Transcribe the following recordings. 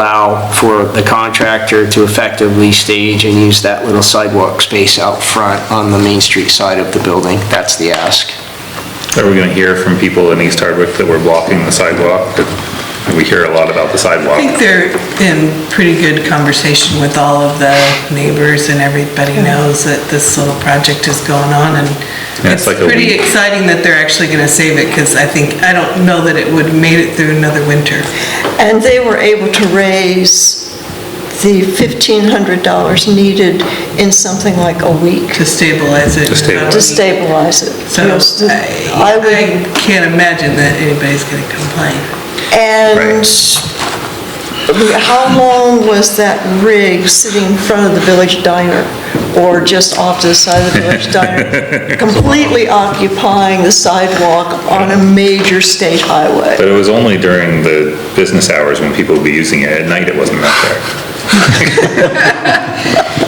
allow for the contractor to effectively stage and use that little sidewalk space out front on the Main Street side of the building. That's the ask. Are we gonna hear from people in East Hardwick that were blocking the sidewalk? We hear a lot about the I sidewalk. think they're in pretty good conversation with all of the neighbors and everybody knows that this little project is going on and Yeah, it's it's like a pretty week. exciting that they're actually gonna save it, cause I think, I don't know that it would have made it through another winter. And they were able to raise the $1,500 needed in something like a week to stabilize it. To stabilize. to stabilize it. So Yes, I I I would, can't imagine that anybody's gonna complain. and how long was that rig sitting in front of the village diner or just off to the side of the village diner? Completely occupying the sidewalk on a major state highway. But it was only during the business hours when people would be using it. At night, it wasn't that there.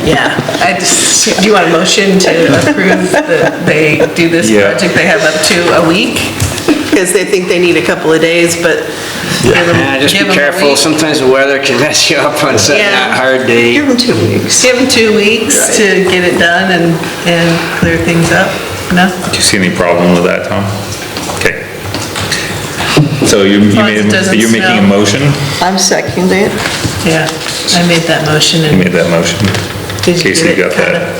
Yeah, I just, do you want a motion to approve that they do this Yeah. project they have up to a week? Because they think they need a couple of days, but give them, Yeah, just give be them a careful, week. sometimes the weather can mess you up on setting that Yeah. hard date. Give them two weeks. Give them two weeks to get it done and, and clear things up, no? Do you see any problem with that, Tom? Okay. So you, you long as made, it doesn't you're making a smell. motion? I'm seconding it. Yeah, I made that motion You and made that motion? Did you Casey, get it got that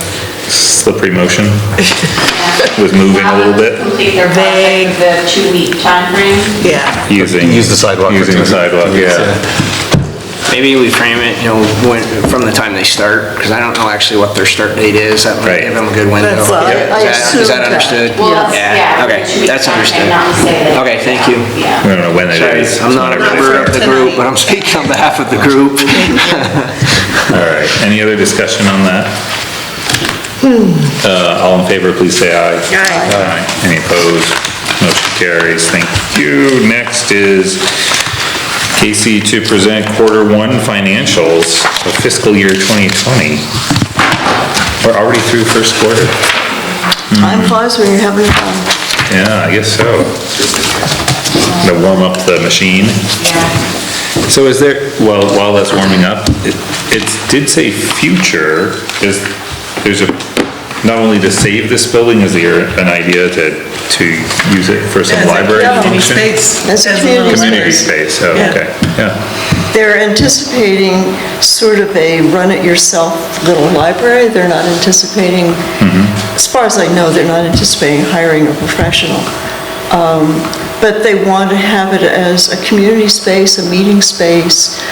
slippery motion? Was moving a little bit? Complete their project with the two-week timeframe. Yeah. Using. Use the sidewalk for Using the two- sidewalk, two weeks, yeah. Maybe we frame it, you know, when, from the time they start, because I don't know actually what their start date is, that might Right. give them a good window. That's, uh, I- Is that- I Is assumed that that. understood? Well, it's- yeah, Okay, the two-week that's timeframe, understood. Not to say that. Okay, thank you. We Yeah. don't know when it Sorry, is. I'm not a member of the group, but I'm speaking on behalf of the group. All right, any other discussion on that? Uh, all in favor, please say aye. Aye. Any opposed? Motion carries, thank you. Next is Casey to present quarter one financials for fiscal year 2020. We're already through first quarter. Time flies when you're having fun. Yeah, I guess so. Gonna warm up the machine. Yeah. So is there, well, while that's warming up, it, it did say future, is, there's a, not only to save this building, is there an idea to, to use it for some library Community function? space. That's as a community little Community space. space, oh, Yeah. okay, yeah, They're anticipating sort of a run-it-yourself little library. They're not anticipating, as far as I know, they're not anticipating hiring a professional. Um, But they want to have it as a community space, a meeting space,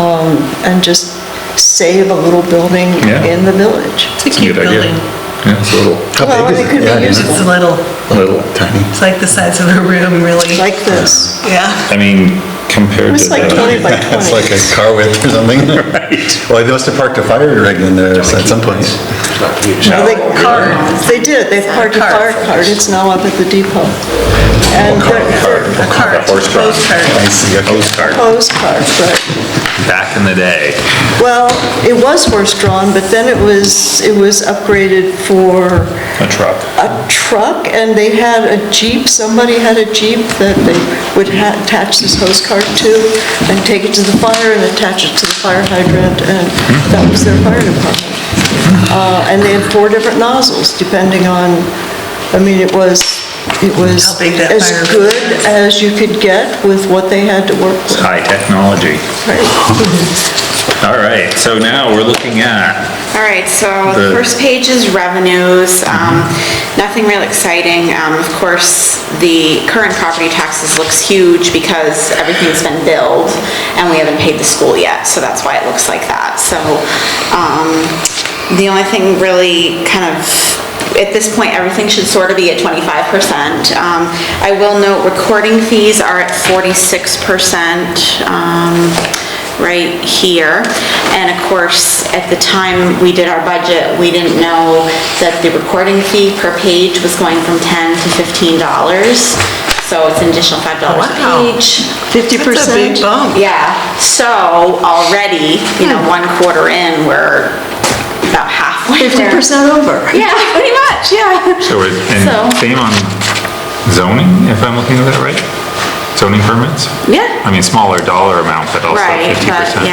um, and just save a little building Yeah. in the village. It's a it's a cute good idea. building. Yeah, it's a little, How Well, big is it could be Yeah, used- It's a little, little, Tiny. it's like the size of a room, really. Like this. Yeah. I mean, compared to It's like the, 20 by It's 20. like a car width or something. Right. Well, they must have parked a fire rig in there at some point. Well, They carved, they did, they've carved a fire Carved. cart, it's now up at the depot. And they're A cart, horse drawn. closed cart. I see, okay. Coast Guard, closed cart, but, back in the day, well, it was horse-drawn, but then it was, it was upgraded for a truck. a truck, and they had a Jeep, somebody had a Jeep that they would ha- attach this hose cart to, and take it to the fire, and attach it to the fire hydrant, and that was their fire department. Uh, And they had four different nozzles, depending on, I mean, it was, it was How big that as fire- good as you could get with what they had to work with. High technology. All right, so now we're looking at, All right, so the The- first page is revenues. Um, Nothing real exciting. Um, Of course, the current property taxes looks huge because everything's been billed and we haven't paid the school yet, so that's why it looks like that. So um, the only thing really kind of at this point, everything should sort of be at 25%. Um, I will note, recording fees are at 46%, um, right here. And of course, at the time we did our budget, we didn't know that the recording fee per page was going from 10 to $15. So it's an additional $5 wow. a page. Fifty That's a percent? big Hmm. bump. Yeah, so already, you know, one quarter in, we're about halfway. there. Fifty percent over. Yeah, pretty much, yeah. so we're, So- and same on zoning, if I'm looking at that right? zoning permits? Yeah. I mean, smaller dollar amount, but also Right, 50%. but, yeah,